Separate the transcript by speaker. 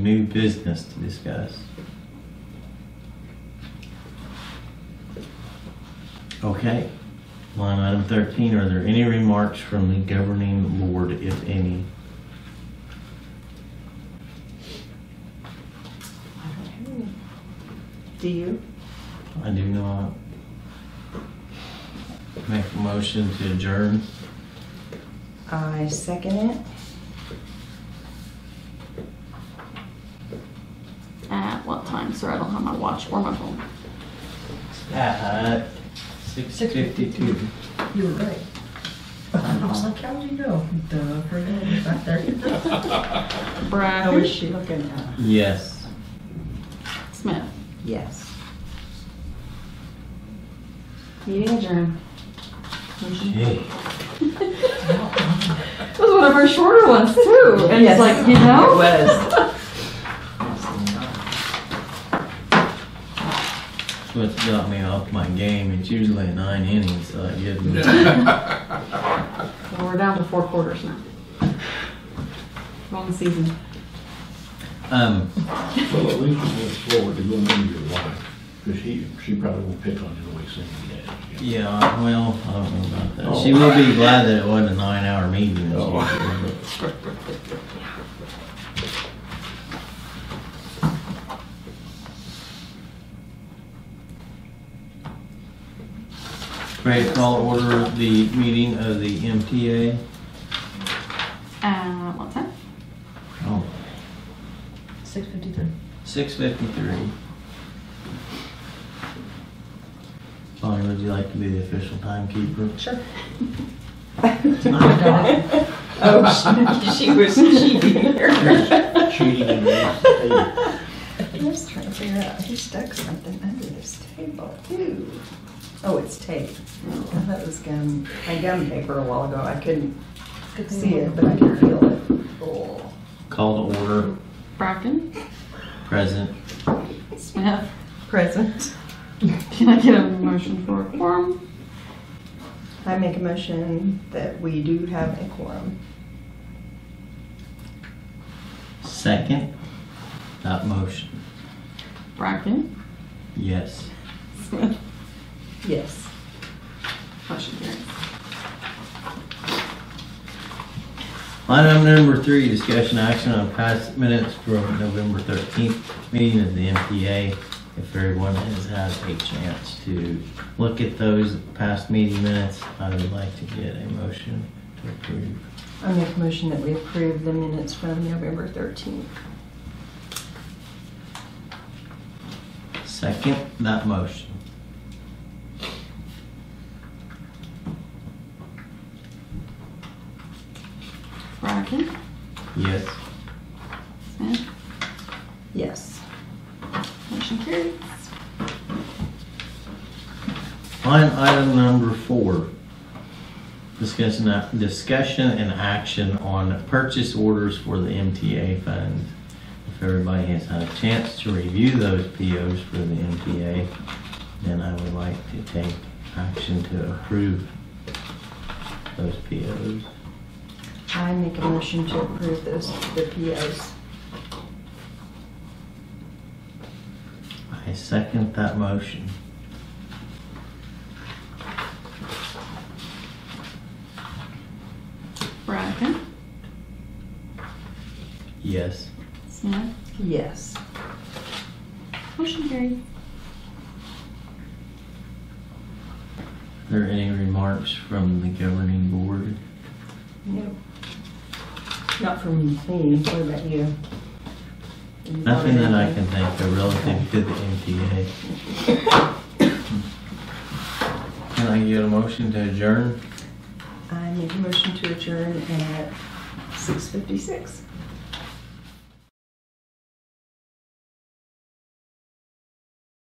Speaker 1: New business to discuss. Okay, line item 13, are there any remarks from the governing board, if any?
Speaker 2: Do you?
Speaker 1: I do not. Make a motion to adjourn.
Speaker 2: I second it.
Speaker 3: At what time, sir? I don't have my watch or my phone.
Speaker 1: At 6:52.
Speaker 4: You were right. I was like, how would you know? Duh, for that, right there.
Speaker 2: How is
Speaker 3: Brad
Speaker 2: she looking at?
Speaker 1: Yes.
Speaker 3: Smith.
Speaker 2: Yes.
Speaker 3: Meeting adjourned.
Speaker 1: Gee.
Speaker 3: It was one of our shorter ones too. And
Speaker 2: Yes.
Speaker 3: it's like, you know?
Speaker 2: It was.
Speaker 1: What got me off my game, it's usually nine innings, so I give me
Speaker 3: Well, we're down to four quarters now. Wrong season.
Speaker 1: Um,
Speaker 5: Well, at least it went forward to going into your wife, because he, she probably will pick on you the way Cindy did.
Speaker 1: yeah, well, I don't know about that. She will be glad that it wasn't a nine-hour meeting this year. but- Ready to call order the meeting of the MTA?
Speaker 3: Uh, what time?
Speaker 1: Oh,
Speaker 4: Six fifty-three.
Speaker 1: 6:53. Bonnie, would you like to be the official timekeeper?
Speaker 4: Sure.
Speaker 1: Tonight?
Speaker 2: Oh, she, she was cheating
Speaker 5: Cheating and everything.
Speaker 2: I was trying to figure out who stuck something under this table. Ooh. Oh, it's tape. I thought it was gum, I gum paper a while ago. I couldn't see it, but I could feel it. Oh.
Speaker 1: Call to order,
Speaker 3: Bracken.
Speaker 1: present.
Speaker 3: Smith.
Speaker 2: Present.
Speaker 3: Can I get a motion for a quorum?
Speaker 2: I make a motion that we do have a quorum.
Speaker 1: Second, that motion.
Speaker 3: Bracken.
Speaker 1: Yes.
Speaker 3: Smith.
Speaker 2: Yes.
Speaker 3: Motion carries.
Speaker 1: Item number three, discussion action on past minutes from November 13th meeting of the MPA. If everyone has had a chance to look at those past meeting minutes, I would like to get a motion to approve.
Speaker 2: I make a motion that we approve the minutes from November 13th.
Speaker 1: Second, that motion.
Speaker 3: Bracken.
Speaker 1: Yes.
Speaker 3: Smith.
Speaker 2: Yes.
Speaker 3: Motion carries.
Speaker 1: Line item number four. Discussion, discussion and action on purchase orders for the MTA funds. If everybody has had a chance to review those POs for the MTA, then I would like to take action to approve those POs.
Speaker 2: I make a motion to approve those, the POs.
Speaker 1: I second that motion.
Speaker 3: Bracken.
Speaker 1: Yes.
Speaker 3: Smith.
Speaker 2: Yes.
Speaker 3: Motion carries.
Speaker 1: Are there any remarks from the governing board?
Speaker 2: No. Not from me, what about you?
Speaker 1: Nothing that I can think of relative to the MTA. Can I get a motion to adjourn?
Speaker 2: I make a motion to adjourn at 6:56.